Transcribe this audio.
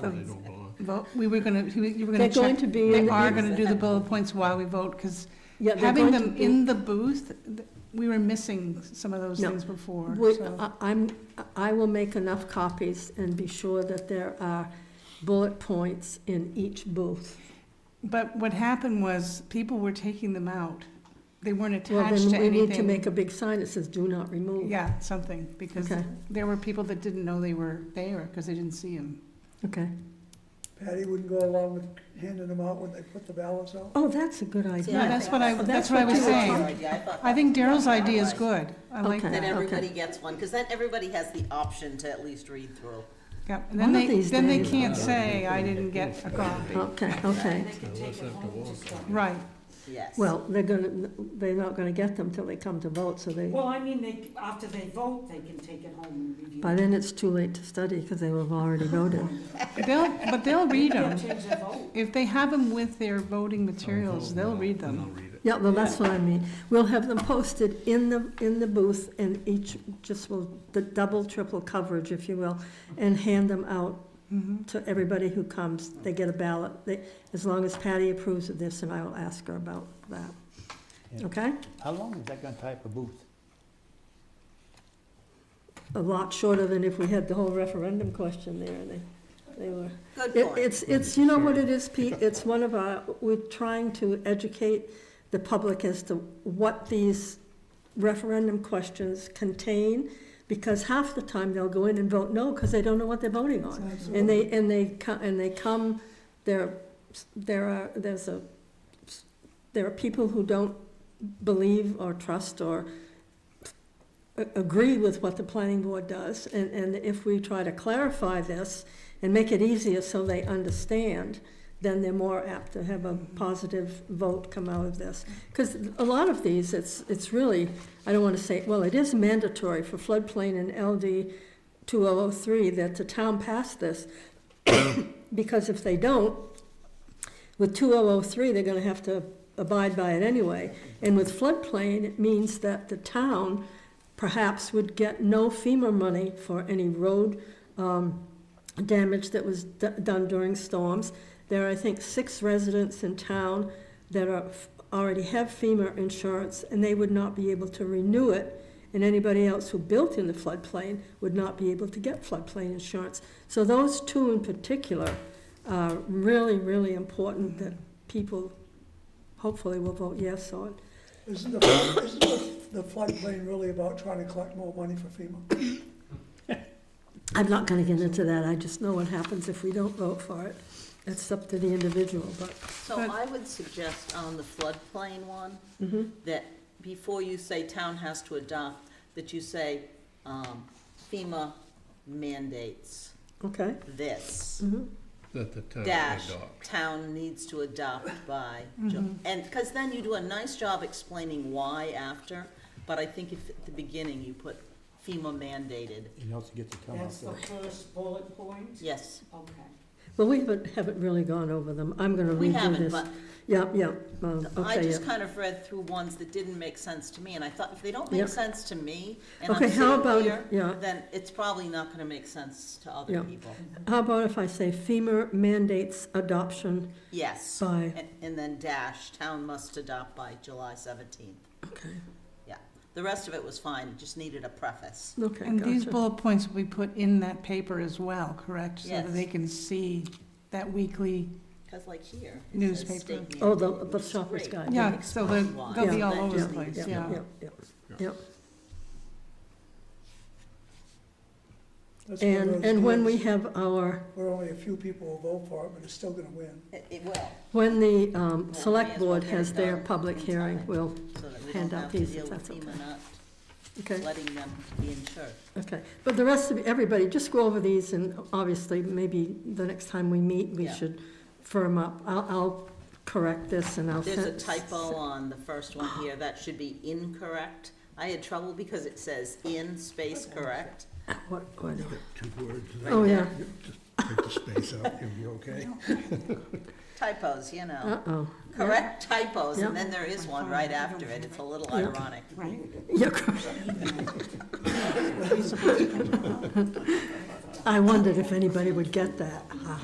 So They don't belong. Vote, we were gonna, you were gonna They're going check, to be. in they the- are gonna do the bullet points while we vote, because Yeah, they're having going to them be- in the booth, th- we were missing some of those No. uh, things before, Would- so. I- I'm, I will make enough copies and be sure that there are bullet points in each booth. But what happened was, people were taking them out. They weren't Well, attached to then we need to make anything. a big sign that says do not remove. Yeah, something, because Okay. there were people that didn't know they were there, because they didn't see them. Okay. Patty wouldn't go along with handing them out when they put the ballots out? Oh, that's a good idea. Yeah, I that's think what I, that's- that's that's what I what was you were saying. Idea. I thought I think Daryl's idea is Otherwise, good. I like Okay. That that. everybody gets one, because then everybody has the option to at least read through. Yeah, and then One of they, these then they days. uh, can't say, I didn't get a copy. Okay, okay. Unless they have to walk. Right, Yes. Well, they're gonna, they're not gonna get them till they come to vote, so they, Well, I mean, they, after they vote, they can take it home and review. by then it's too late to study because they will have already voted. they'll, but they'll read They'll them. change their vote. If they have them with their voting materials, Oh, they'll read And I'll them. read it. Yeah, well, that's what I mean. We'll have them posted in the, in the booth and each just will, the double, triple coverage, if you will, and hand them out Mhm. to everybody who comes. They get a ballot. They, as long as Patty approves of this, and I will ask her about that. Yeah. Okay? How long is that gonna type a booth? A lot shorter than if we had the whole referendum question there. They, they were. Good It, point. it's, it's, you know what it is, Pete? It's one of our, we're trying to educate the public as to what these referendum questions contain, because half the time they'll go in and vote no, because they don't know what they're voting on. And they, and they, co- and they come, there, there are, there's a, there are people who don't believe or trust or a- agree with what the planning board does, and, and if we try to clarify this and make it easier so they understand, then they're more apt to have a positive vote come out of this. Because a lot of these, it's, it's really, I don't want to say, well, it is mandatory for floodplain and LD 2003 that the town pass this, because if they don't, with 2003, they're going to have to abide by it anyway. And with floodplain, it means that the town perhaps would get no FEMA money for any road um, damage that was d- done during storms. There are, I think, six residents in town that are, already have FEMA insurance, and they would not be able to renew it. And anybody else who built in the floodplain would not be able to get floodplain insurance. So those two in particular are really, really important that people hopefully will vote yes on. Isn't the, isn't the the floodplain really about trying to collect more money for FEMA? I'm not gonna get into that, I just know what happens if we don't vote for it. It's up to the individual, but, So I would suggest on the floodplain one, Mm-hmm. that before you say town has to adopt, that you say um, FEMA mandates okay. this. Mm-hmm. That the town dash, adopt. town needs to adopt by, Mm-hmm. Ju- and, because then you do a nice job explaining why after, but I think if, at the beginning, you put FEMA mandated, You also get the town That's the hall. first bullet point? yes. Okay. Well, we haven't, haven't really gone over them, I'm gonna We redo haven't, this. but Yeah, yeah, um, I okay, just yeah. kind of read through ones that didn't make sense to me, and I thought, if they don't make Yep. sense to me, and I'm Okay, how sitting about- here, yeah. then it's probably not gonna make sense to other Yeah. people. How about if I say FEMA mandates adoption Yes, by, and, and then dash, town must adopt by July seventeenth, okay, yeah. The rest of it was fine, it just needed a preface. okay, And these gotcha. bullet points will be put in that paper as well, correct? So that Yes. they can see that weekly, Because like here. it says Newspaper. state Oh, the- mandate, the which is shopper's great. guide. yeah, so they'll, they'll be Yeah. all over the Yeah. place, Yeah. yeah. Yeah, yeah, yeah. That's one of And, those and when we deals have our, Where only a few people will vote for it, but it's still gonna win. It it will, when the, um, may select as well board get it has their done public in hearing, time. we'll, so that we Hand don't out have to these if deal with that's okay. FEMA not okay. letting them be insured. Okay, but the rest of, everybody, just go over these, and obviously, maybe the next time we meet, we Yeah. should firm up. I'll, I'll correct this and I'll. There's a send- typo on the first one here, that should be incorrect. I had trouble because it says in space correct. What, what? Two words. Oh, yeah, Take the space out, you'll be okay. Typos, you know, uh-oh. correct typos, and Yeah. then there is one right after it, it's a little ironic. Right? Yeah, cor- I wondered if anybody would get that, Ha ha.